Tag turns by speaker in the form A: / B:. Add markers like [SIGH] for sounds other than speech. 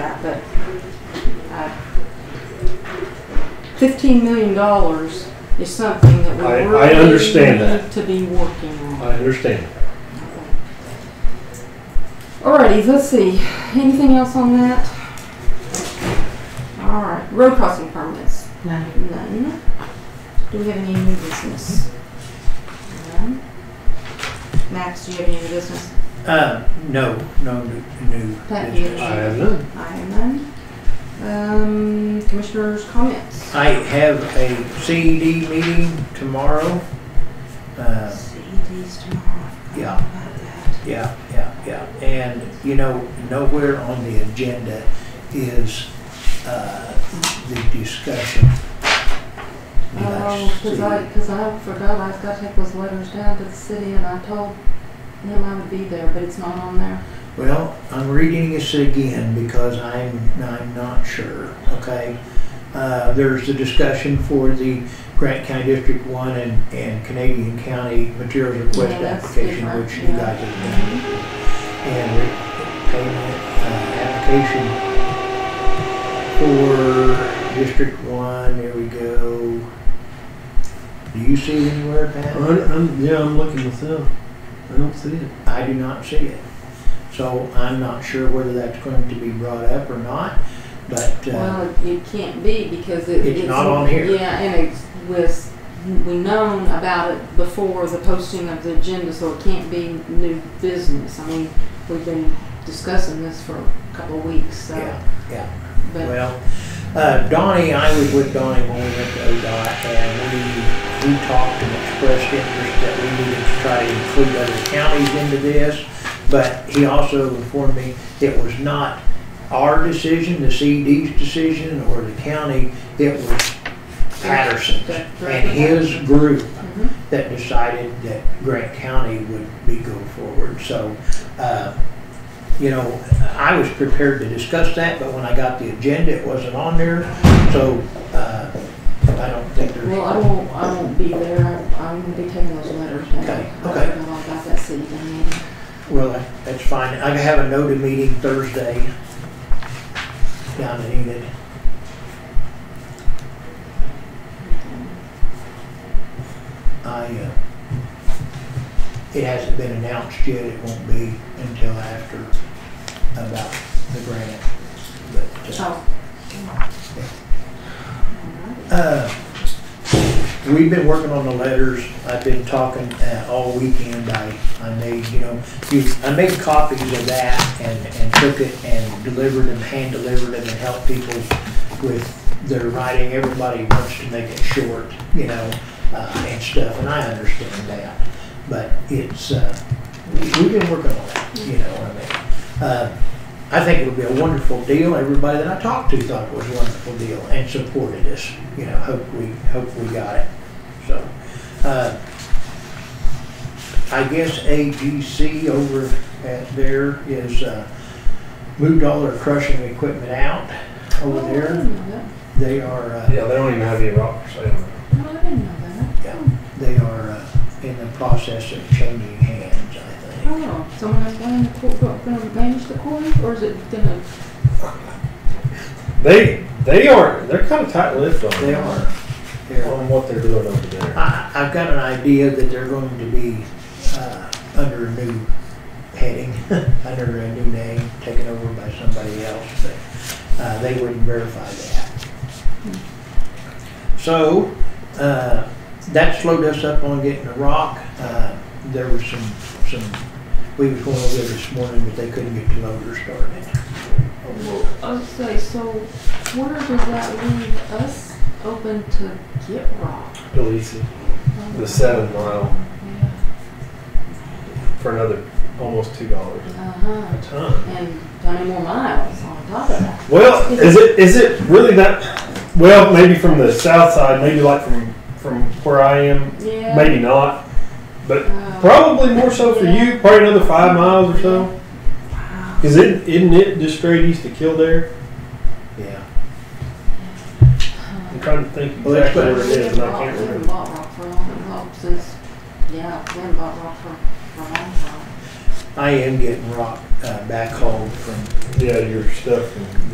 A: that, but uh, fifteen million dollars is something that we
B: I- I
A: really
B: understand that.
A: need to be working on.
B: I understand.
A: Alrighty, let's see. Anything else on that? All right, road crossing permits.
C: No.
A: None. Do we have any new business? None. Max, do you have any new business?
D: Uh, no, no new, new
A: Pat, do you
D: business.
A: have
B: I have
A: any?
B: none.
A: I have none. Um, commissioners' comments.
D: I have a CED meeting tomorrow. Uh,
A: CDs tomorrow.
D: yeah,
A: About that.
D: yeah, yeah, yeah. And, you know, nowhere on the agenda is, uh, the discussion. with
A: Oh,
D: us.
A: cause I, cause I forgot I've got to take those letters down to the city and I told him I would be there, but it's not on there.
D: Well, I'm reading this again because I'm, I'm not sure, okay? Uh, there's the discussion for the Grant County District One and, and Canadian County Materials Request
A: Yeah, that's
D: Application,
A: different,
D: which you
A: yeah.
D: guys have done. and re- payment uh, application uh, for District One, there we go. Do you see it anywhere, Pat?
B: I'm, I'm- yeah, I'm looking myself. I don't see it.
D: I do not see it. So I'm not sure whether that's going to be brought up or not, but, uh,
A: Well, it- it can't be because it,
D: It's not on here.
A: Yeah, and it was we known about it before the posting of the agenda, so it can't be new business. I mean, we've been discussing this for a couple of weeks, so
D: yeah,
A: but
D: well. Uh, Donnie, I was with Donnie when we went to ODOT and we, we talked and expressed interest that we needed to try to include other counties into this. But he also informed me it was not our decision, the CD's decision, or the county, it was Patterson's and his group
A: Mhm.
D: that decided that Grant County would be go forward. So, uh, you know, I was prepared to discuss that, but when I got the agenda, it wasn't on there. So, uh, I don't think there's.
A: Well, I won't, I won't be there. I'm gonna be taking those letters down.
D: Okay,
A: I
D: okay.
A: don't know about that city meeting.
D: Well, that- that's fine. I have a noted meeting Thursday down in Enid. I, uh, it hasn't been announced yet. It won't be until after about the grant. But, uh,
A: So.
D: uh, we've been working on the letters. I've been talking uh, all weekend. I, I made, you know, you, I made copies of that and, and took it and delivered them, hand delivered them and helped people with their writing. Everybody wants to make it short, you know, uh, and stuff, and I understand that. But it's, uh, we- we've been working on that, you know what I mean? Uh, I think it would be a wonderful deal. Everybody that I talked to thought it was a wonderful deal and supported us. You know, hope we, hope we got it. So, uh, I guess AGC over at there is, uh, moved all their crushing equipment out over
A: Oh, I
D: there.
A: didn't know
D: They are, uh,
E: Yeah, they don't even have any rock for sale.
A: that. No, I didn't know that. Oh.
D: they are uh, in the process of changing hands, I think.
A: Oh, someone has gone in the court, gonna manage the court, or is it gonna?
E: They they are they're kind of tight lipped on
D: They are. They're-
E: on what they're doing over there.
D: I, I've got an idea that they're going to be uh, under a new heading, [LAUGHS] under a new name, taken over by somebody else, but uh, they wouldn't verify that. So uh, that slowed us up on getting the rock. Uh, there was some some we was going over there this morning, but they couldn't get the loader started.
A: Okay, so where does that leave us open to get rock?
E: Delisi, the seven mile
A: Yeah.
E: for another almost two dollars
A: Uh-huh,
E: a ton.
A: and twenty more miles on top of that.
E: Well, is it is it really that? Well, maybe from the south side, maybe like from from where I am,
A: Yeah.
E: maybe not, but
A: Uh,
E: probably more so for you. Probably another five miles or so.
A: Wow.
E: Cause it isn't it just straight east of Kildare?
D: Yeah.
E: I'm trying to think
D: Well, that's
E: exactly where it is, and I can't
A: We haven't
E: remember.
A: bought rock for a long, long since, yeah, we haven't bought rock for, for a long time.
D: I am getting rock uh, back home from
E: Yeah, your stuff. And